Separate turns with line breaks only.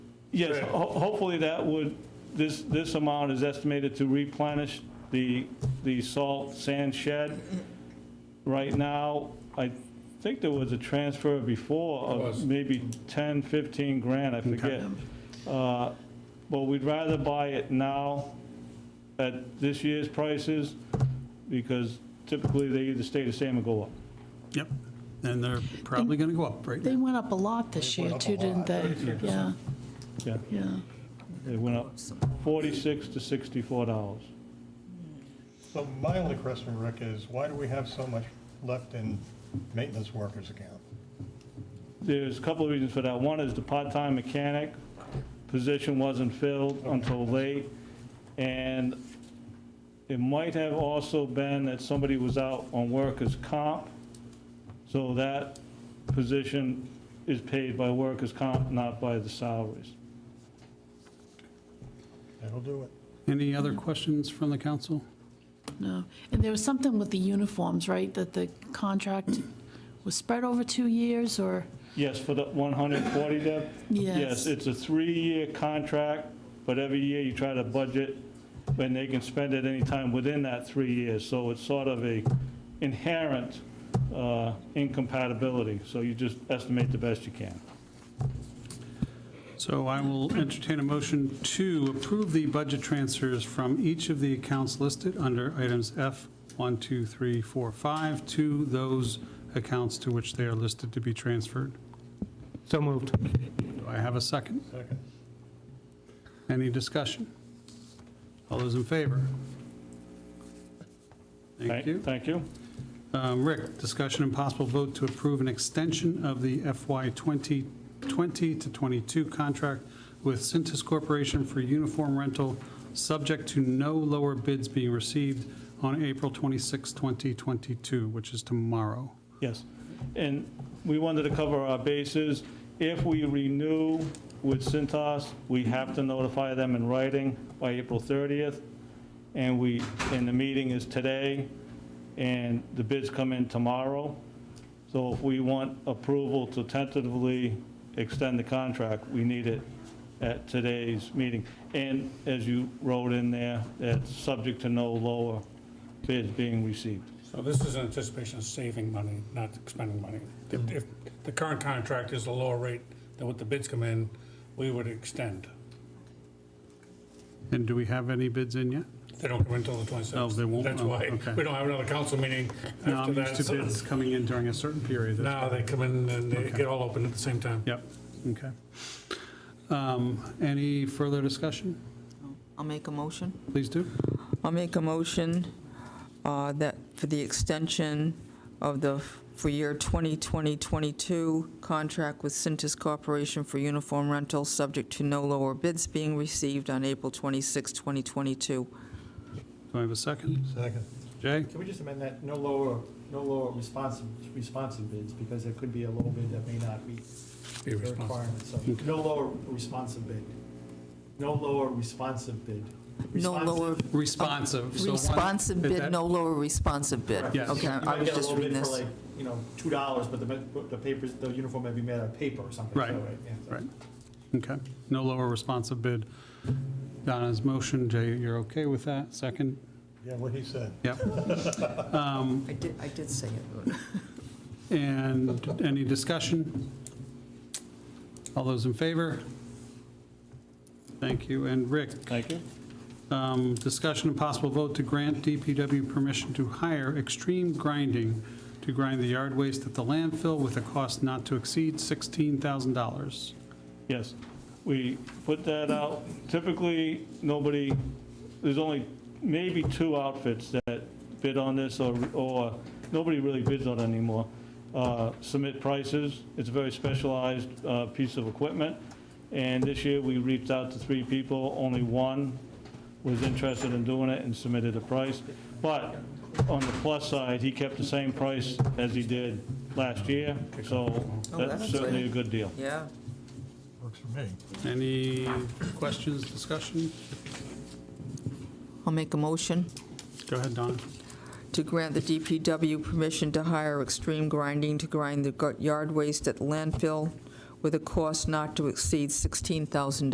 Yes, ho- hopefully that would, this, this amount is estimated to replenish the, the salt sand shed. Right now, I think there was a transfer before
There
of
was.
maybe 10, 15 grand, I forget. Uh, But we'd rather buy it now at this year's prices, because typically they either stay the same or go up.
Yep, and they're probably going to go up right
They
now.
went up a lot this year
up a
too, didn't
lot,
they? Yeah,
Yeah,
yeah.
it went up 46 to 64 dollars.
So my only question, Rick, is why do we have so much left in maintenance workers account?
There's a couple of reasons for that. One is the part-time mechanic position wasn't filled until late, and it might have also been that somebody was out on workers' comp, so that position is paid by workers' comp, not by the salaries.
That'll do it.
Any other questions from the council?
No, and there was something with the uniforms, right, that the contract was spread over two years, or,
Yes, for the 140, Deb?
Yes.
Yes, it's a three-year contract, but every year you try to budget, and they can spend it anytime within that three years, so it's sort of a inherent uh, incompatibility, so you just estimate the best you can.
So I will entertain a motion to approve the budget transfers from each of the accounts listed under items F, 1, 2, 3, 4, 5, to those accounts to which they are listed to be transferred.
So moved.
Do I have a second?
Second.
Any discussion? All those in favor? Thank you.
Thank you.
Um, Rick, discussion and possible vote to approve an extension of the FY 2020 to 22 contract with Cintas Corporation for uniform rental, subject to no lower bids being received on April 26, 2022, which is tomorrow.
Yes. And we wanted to cover our bases. If we renew with Cintas, we have to notify them in writing by April 30th. And we, and the meeting is today, and the bids come in tomorrow. So if we want approval to tentatively extend the contract, we need it at today's meeting. And as you wrote in there, that's subject to no lower bids being received.
So this is in anticipation of saving money, not expending money.
Mm-hmm.
If, if the current contract is a lower rate than what the bids come in, we would extend.
And do we have any bids in yet?
They don't come in until the 26th.
Oh, they won't?
That's
Oh,
why,
okay.
we don't have another council meeting
No,
after
I'm
that.
Um, used to
so
bids coming in during a certain period. That's
Now they come in and they get all open at the same time.
Yep, okay. Um, Any further discussion?
I'll make a motion.
Please do.
I'll make a motion uh, that for the extension of the, for year 2020-22, contract with Cintas Corporation for uniform rental, subject to no lower bids being received on April 26, 2022.
Do I have a second?
Second.
Jay?
Can we just amend that, no lower, no lower responsive, responsive bids, because there could be a low bid that may not meet
Be
the
responsible.
requirements, so, no lower responsive bid. No lower responsive bid.
No lower,
Responsive-
Responsive. so one-
responsive
Is that-
bid, no lower responsive bid.
Correct.
Yes.
Okay,
You
I
might
was
get a
just
low
reading
bid for
this.
like, You know, two dollars, but the, but the papers, the uniform may be made out of paper or something. so,
Right.
yeah, so.
Right, okay. No lower responsive bid. Donna's motion, Jay, you're okay with that? Second?
Yeah, what he said.
Yep.
I did, I did say it.
And any discussion? All those in favor? Thank you. And Rick,
Thank you.
um, discussion and possible vote to grant DPW permission to hire extreme grinding to grind the yard waste at the landfill with a cost not to exceed $16,000.
Yes, we put that out. Typically, nobody, there's only maybe two outfits that bid on this, or, or nobody really bids on it anymore. Uh, Submit prices, it's a very specialized uh, piece of equipment, and this year we reached out to three people, only one was interested in doing it and submitted a price. But on the plus side, he kept the same price as he did last year, so
Oh,
that's
that's
certainly a good
good.
deal.
Yeah.
Works for me.
Any questions, discussion?
I'll make a motion.
Go ahead, Donna.
to grant the DPW permission to hire extreme grinding to grind the gu- yard waste at landfill with a cost not to exceed $16,000.